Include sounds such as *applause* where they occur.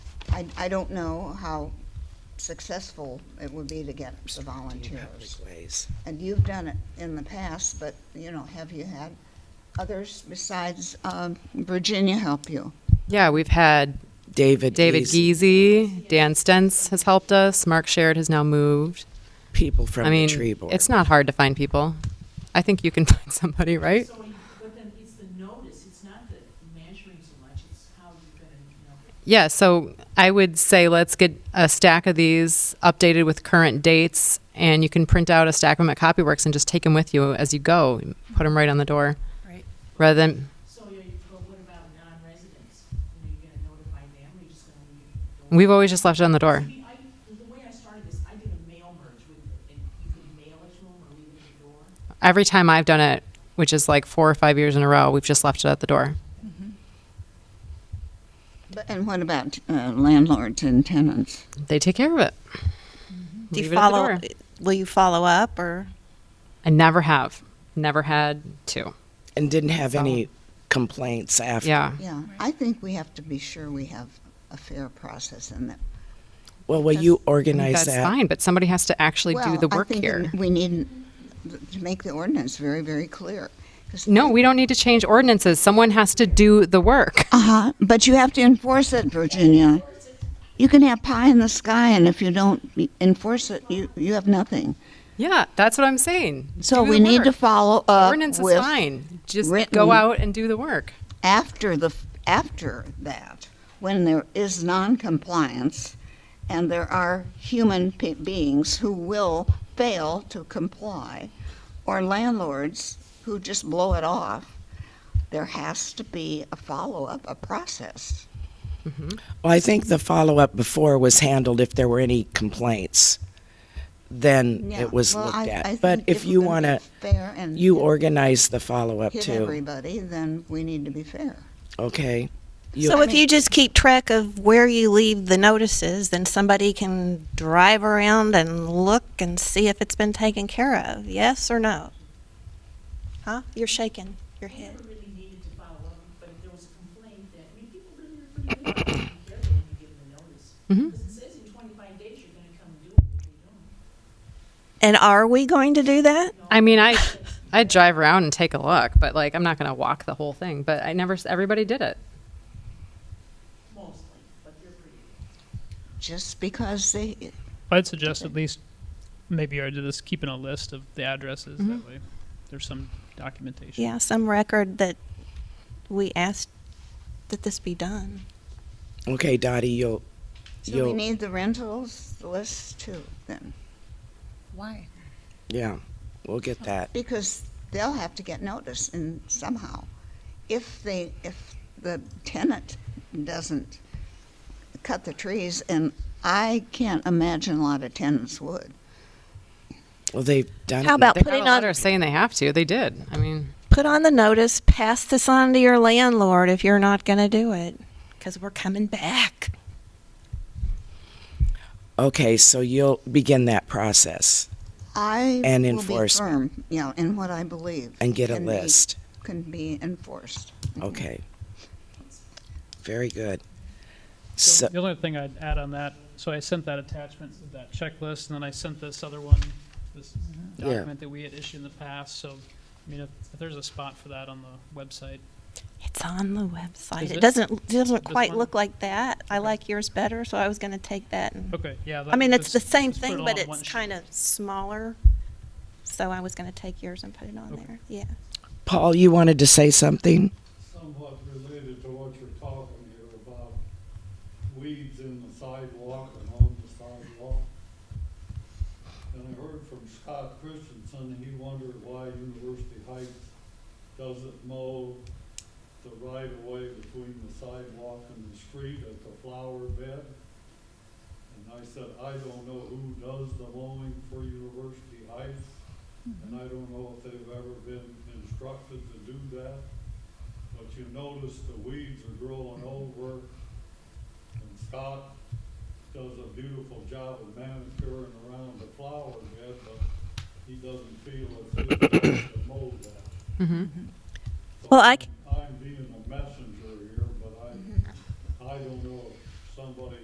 I, I don't know how successful it would be to get the volunteers. Ways. And you've done it in the past, but, you know, have you had others besides um, Virginia help you? Yeah, we've had David. David Giese, Geezy, Dan Stentz has helped us. Mark Sherrod has now moved. People from I mean, the tree board. it's not hard to find people. I think you can *laughs* find somebody, right? So, he- but then it's the notice, it's not the measuring so much, it's how you're gonna, you know. Yeah, so I would say let's get a stack of these updated with current dates, and you can print out a stack of them at Copyworks and just take them with you as you go. Put them right on the door. Right. Rather than, So, you know, but what about non-residents? You know, you're gonna notify them, or you're just gonna leave? it open? we've always just left it on the door. See, I, the way I started this, I did a mail merge with, and you could mail it to them or leave it at the door. Every time I've done it, which is like four or five years in a row, we've just left it at the door. But- And what about uh, landlords and tenants? They take care of it. Mm-hmm. Do you Leave it at the follow? door. Will you follow up or? I never have. Never had to. and didn't have any complaints after. Yeah. Yeah, I think we have to be sure we have a fair process in that. Well, will you organize That's that? fine, but somebody has to actually Well, do the I work think here. We need to make the ordinance very, very clear. 'Cause- No, we don't need to change ordinances. Someone has to do the work. Uh-huh, but you have to enforce it, Virginia. You can have pie in the sky, and if you don't be- enforce it, you, you have nothing. *laughs* Yeah, that's what I'm saying. So Do we the need to work. follow up Ordinance is with, fine. Just written- go out and do the work. after the, f- after that, when there is noncompliance, and there are human pe- beings who will fail to comply, or landlords who just blow it off, there has to be a follow-up, a process. Well, I think the follow up before was handled if there were any complaints. Then Yeah, it was well, looked I- at. I but think if you we're want gonna to, be fair and you organize the follow up hit too. everybody, then we need to be fair. Okay. You- So if you just keep track of where you leave the notices, then somebody can drive around and look and see if it's been taken care of. Yes or no? Huh? You're shaking your We head. never really needed to follow up, but if there was a complaint that, I mean, people really are pretty good about taking care of it when you give them the notice. Mhm. Because it says in twenty-five days you're gonna come do it, if you don't. And are we going to do that? I mean, I I drive around and take a look, but like I'm not going to walk the whole thing. But I never. s- Everybody did it. mostly, but they're pretty good. Just because they, I'd suggest at least maybe I just keeping a list of the addresses. That way, there's some documentation. Mm-hmm. Yeah, some record that we asked that this be done. okay, Dottie, you'll. so we you'll need the rentals list too, then. Why? yeah, we'll get that. Because they'll have to get notice in somehow. If they, if the tenant doesn't cut the trees, and I can't imagine a lot of tenants would. Well, they've done How it. about They got putting a on letter saying they have to. They did. I mean. put on the notice, pass this on to your landlord if you're not going to do it, because we're coming back. Okay, so you'll begin that process I And will be enforcement. firm, you know, in what I believe. and get a can be- list. Can be enforced. Okay. Very good. So, So the only thing I'd add on that, so I sent that attachment, to that checklist, and then I sent this other one, this Mm-hmm. Yeah. document that we had issued in the past. So, I mean, if, if there's a spot for that on the website, It's on the website. Is It it? doesn't doesn't This quite one? look like that. I like yours better, so I was going to take that. And, okay, yeah. I mean, it's the same just put it thing, all but on one it's sheet. kind of smaller. So I was going to take yours and put it on Okay. there. Yeah. Paul, you wanted to say something? somewhat related to what you're talking here about weeds in the sidewalk and on the sidewalk. And I heard from Scott Christensen, he wondered why University Heights doesn't mow the right of way between the sidewalk and the street at the flower bed. And I said, I don't know who does the mowing for University Heights, and I don't know if they've ever been instructed to do that. But you notice the weeds are growing over, and Scott does a beautiful job of manicuring around the flower bed, but he doesn't feel it's his place to mow that. So Mm-hmm. Well, I c- Mm-hmm. I'm being a messenger here, but I, I don't know if somebody